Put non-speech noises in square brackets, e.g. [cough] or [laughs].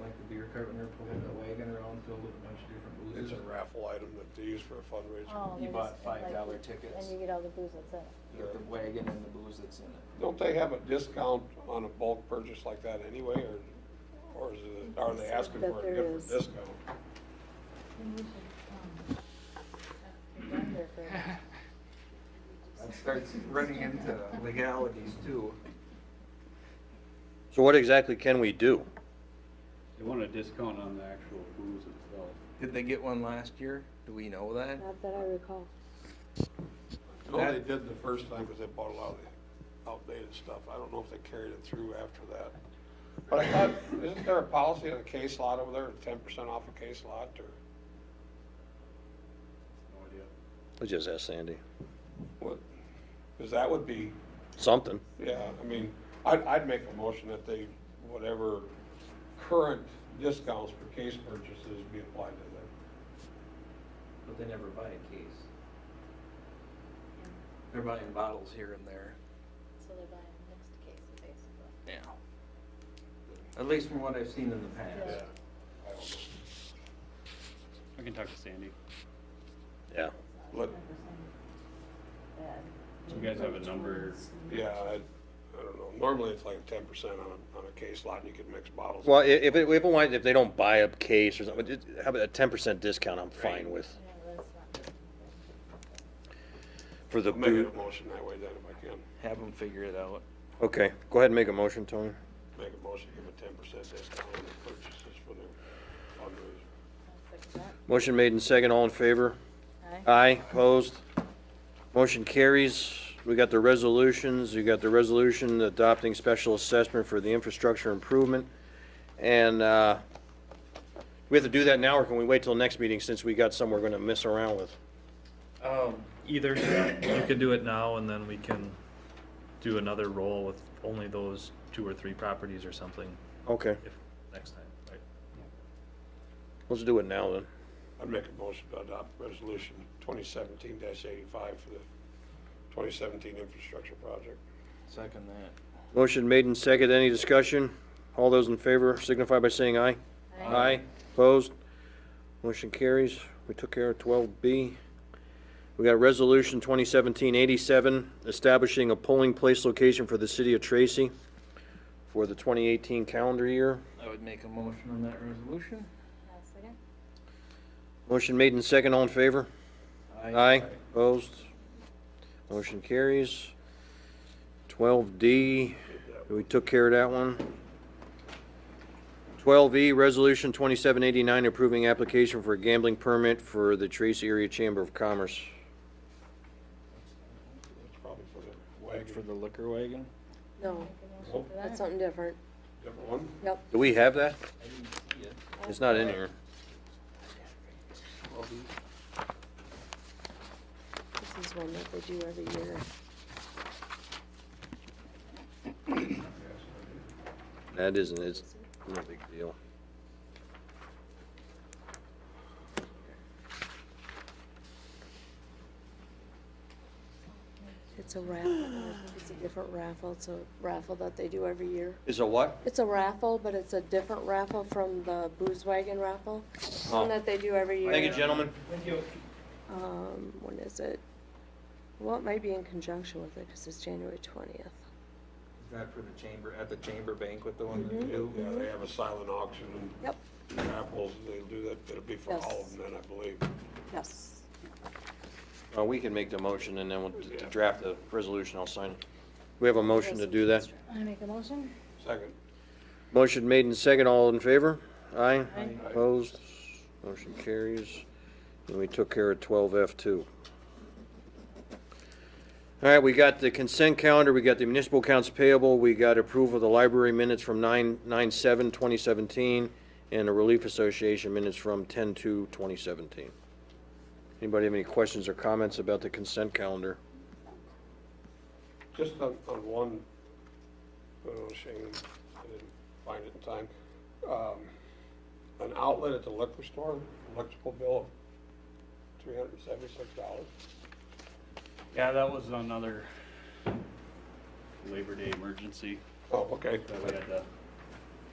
like the beer cart when they're pulling that wagon around filled with a bunch of different It's boozes. a raffle item that they use for a fundraiser. Oh, You they bought just- five like, dollar you- tickets. And you get all the booze that's in it. You got the wagon and the booze that's in it. Don't they have a discount on a bulk purchase like that anyway, or, or is it, are they asking That for a there different is. discount? Wonder [laughs] for- That starts running into legalities too. So what exactly can we do? They want a discount on the actual booze itself. Did they get one last year? Do we know that? Not that I recall. No, they That- did the first time because they bought a lot of the outdated stuff. I don't know if they carried it through after that. But I thought, isn't there a policy on a case lot over there, ten percent off a case lot or No idea. Let's just ask Sandy. what? Because that would be, Something. yeah, I mean, I'd, I'd make a motion that they, whatever current discounts for case purchases be applied to them. But they never buy a case. They're buying bottles here and there. So they're buying mixed cases, basically. Yeah. At least from what I've seen in the past. Yeah. I don't know. I can talk to Sandy. Yeah. Let, Do you guys have a number? yeah, I, I don't know. Normally it's like ten percent on, a- on a case lot and you could mix bottles. Well, i- if, it- if, it wa- if they don't buy a case or something, just have a ten percent discount, I'm fine with, Yeah, that's not. for the I'll Make boo. a motion that way then if I can. Have them figure it out. Okay, go ahead and make a motion, Tony. Make a motion, give a ten percent discount on their purchases for their fundraiser. Motion made in second, all in favor? Aye. Aye, opposed? Motion carries. We got the resolutions, you got the resolution adopting special assessment for the infrastructure improvement. And, uh, we have to do that now, or can we wait till next meeting since we got some we're gonna mess around with? Um, either, you could do it now and then we can do another roll with only those two or three properties or something Okay, if, next time, right? let's do it now then. I'd make a motion to adopt resolution twenty seventeen eighty-five for the twenty seventeen infrastructure project. Second that. Motion made and second. Any discussion? All those in favor signify by saying aye. Aye. Opposed? Motion carries. We took care of 12B. We got Resolution 2017-87, establishing a polling place location for the city of Tracy for the 2018 calendar year. I would make a motion on that resolution. I'll second. Motion made and second. All in favor? Aye. Opposed? Motion carries. 12D, we took care of that one. 12E, Resolution 2789, approving application for a gambling permit for the Tracy Area Chamber of Commerce. That's probably for the Like for wagon. the liquor wagon? No, Oh, that's something different. Different one? Yep. Do we have that? It's not in here. This is one that they do every year. That isn't, it's no big deal. It's a raffle. [gasps] I think It's a different raffle. It's a raffle that they do every year. Is a what? It's a raffle, but it's a different raffle from the booze wagon raffle. Oh. One that they do every year. Thank you, gentlemen. Um, when is it? Well, it might be in conjunction with it because it's January twentieth. Is that for the chamber, at the chamber banquet, the one that Yeah, do? yeah, they have a silent auction Yep, and raffles, they'll do that, it'll be for all of them then, I believe. yes. Uh, we can make the motion and then we'll d- draft the resolution. I'll sign it. We have a motion to do that. I make a motion? Second. Motion made and second, all in favor? Aye? Aye. Opposed? Motion carries. And we took care of twelve F too. All right, we got the consent calendar, we got the municipal accounts payable, we got approval of the library minutes from nine, nine seven, twenty seventeen, and the Relief Association minutes from ten two, twenty seventeen. Anybody have any questions or comments about the consent calendar? Just on, on one, oh, shame, I didn't find it in time. Um, An outlet at the liquor store, electrical bill of three hundred and seventy-six dollars. Yeah, that was another Labor Day emergency Oh, okay. that we had to